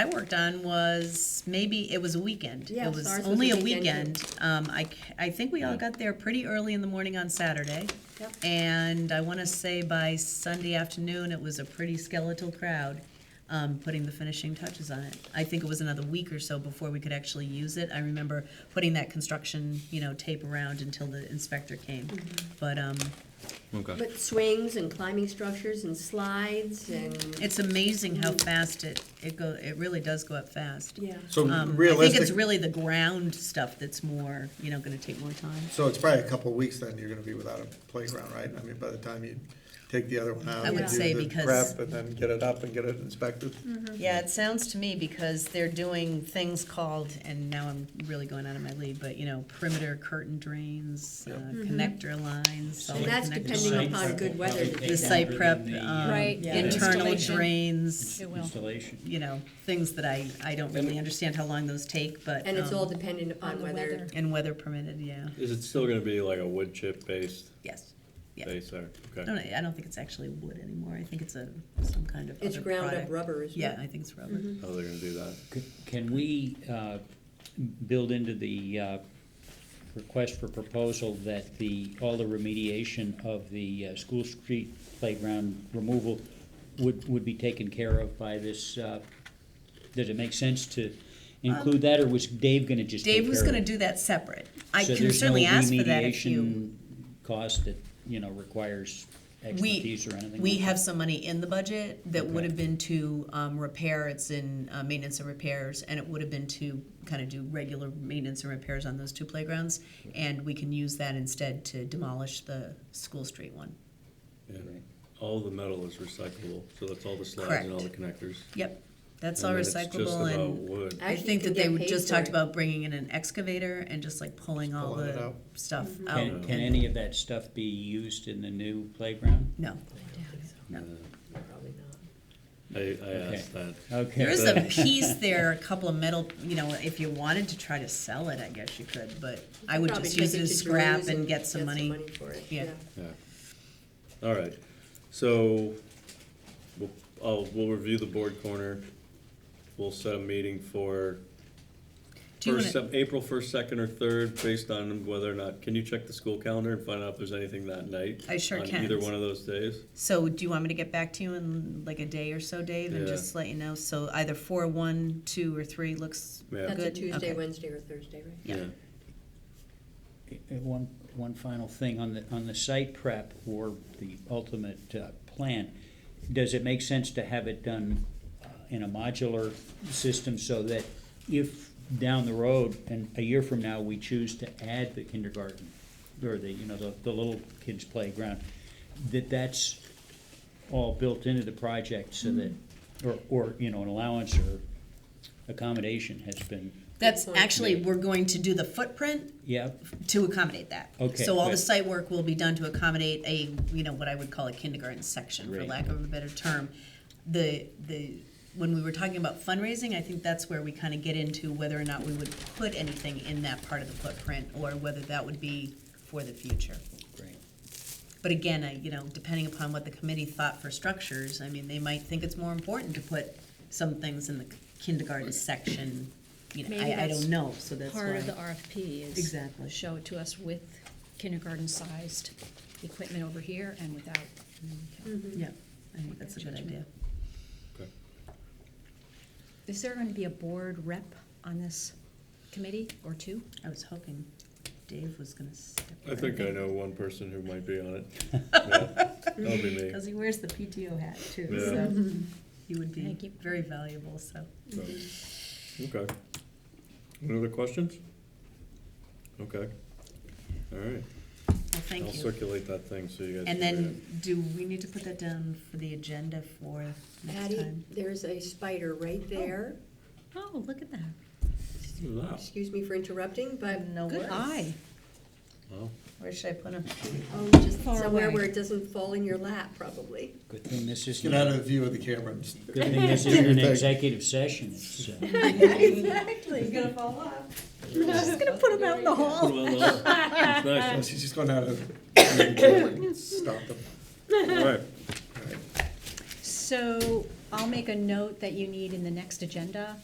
worked on was maybe, it was a weekend. Yes, It was ours was a only a weekend, weekend. Um, I, c- I think we all got there pretty early in the morning on Saturday. Yep. And I wanna say by Sunday afternoon, it was a pretty skeletal crowd, um, putting the finishing touches on it. I think it was another week or so before we could actually use it. I remember putting that construction, you know, tape around until the inspector came. Mm-hmm. But, um, Okay. But swings and climbing structures and slides and, it's amazing how fast it, it go, it really does go up fast. yeah. So Um, I think it's realistic, really the ground stuff that's more, you know, gonna take more time. so it's probably a couple of weeks then you're gonna be without a playground, right? I mean, by the time you take the other one out. I and would do say the because- Prep and then get it up and get it inspected. Yeah, it sounds to me because they're doing things called, and now I'm really going out of my lead, but you know, perimeter curtain drains, uh, Yeah. connector lines, solid And that's connector depending lines. upon good weather. to The do that. site prep, um, Right, Yeah. internal installation. drains, It will. Installation. you know, things that I, I don't really understand how long those take, but. And it's um, all dependent upon On the whether, weather. And weather permitted, yeah, Is it still gonna be like a wood chip based yes, yeah. base art? I Okay. don't, I don't think it's actually wood anymore, I think it's a, some kind of it's other ground up product. rubber as Yeah, well. I think it's rubber. How they're gonna do that? Can we uh, build into the uh, request for proposal that the, all the remediation of the uh, school street playground removal would, would be taken care of by this, uh, does it make sense to include that, or was Dave gonna just take care Um, of Dave it? was gonna do that separate. I So can there's no certainly ask for that if you. remediation Cost that, you know, requires We, expertise or anything? we like that? have some money in the budget that would Okay. have been to um, repair, it's in uh, maintenance and repairs, and it would have been to kind of do regular maintenance and repairs on those two playgrounds. And we can use that instead to demolish the School Street one. And all the metal is recyclable, so that's all the slides and all the connectors. Yep, that's And all then it's Just recyclable about and wood. I Actually, think you that can they get would paid just for talked it. about bringing in an excavator and just like pulling all pulling it the out. stuff Mm-hmm. out. Can, can and- any of that stuff be used in the new playground? No, Probably not. I, I asked that. Okay. There is a piece there, a couple of metal, you know, if you wanted to try to sell it, I guess you could, but I would Probably just use take it to as scrap Drew's and get some money. for it, Yeah. Yeah. All right. So we'll, I'll, we'll review the board corner. We'll set a meeting for Do you first, wanna- Sep- April first, second, or third, based on whether or not, can you check the school calendar and find out if there's anything that night? I sure can. On either one of those days? So do you want me to get back to you in like a day or so, Dave, and Yeah. just let you know? So either four, one, two, or three looks Yeah. That's a good? Tuesday, Okay. Wednesday, or Thursday, right? Yeah. Uh, One, one final thing on the, on the site prep or the ultimate uh, plan, does it make sense to have it done uh, in a modular system so that if down the road and a year from now, we choose to add the kindergarten or the, you know, the, the little kids playground, that that's all built into the project so that, or, or, you know, an allowance or accommodation has been, That's Good point. actually, we're going to do the footprint yeah, to accommodate that. Okay, So all the good. site work will be done to accommodate a, you know, what I would call a kindergarten section, for Great. lack of a better term. The, the, when we were talking about fundraising, I think that's where we kind of get into whether or not we would put anything in that part of the footprint, or whether that would be for the future. great. But again, I, you know, depending upon what the committee thought for structures, I mean, they might think it's more important to put some things in the kindergarten section, you know, Maybe I, I that's don't know, so that's why. Part of the RFP is. Exactly. Show it to us with kindergarten-sized equipment over here and without. Mm-hmm. Yeah, I think that's a good idea. Is there going to be a board rep on this committee or two? I was hoping Dave was gonna step I in. think I know one person who might be on it. Yeah, That'll be me. Cause he wears the PTO hat too, Yeah. so he would be Thank you. very valuable, so. So, Okay. Any other questions? Okay. All right. Well, I'll thank you. circulate that thing so you guys. And can read then, do we need to put that down for the agenda for next Patty, time? there's a spider right there. Oh, look at that. it. Ooh, Wow, Excuse me for interrupting, but No Good worries. eye. wow. Where should I put him? oh, just Far somewhere away. where it doesn't fall in your lap, probably. Good thing this is. Get out of the view of the camera. and just- Good thing this isn't your an thing. executive session, it's, uh, Exactly. He's gonna fall off. Just gonna put him out in the hall. Well, uh, that's No, nice. She's just going out of. Stop them. All right. So I'll make a note that you need in the next agenda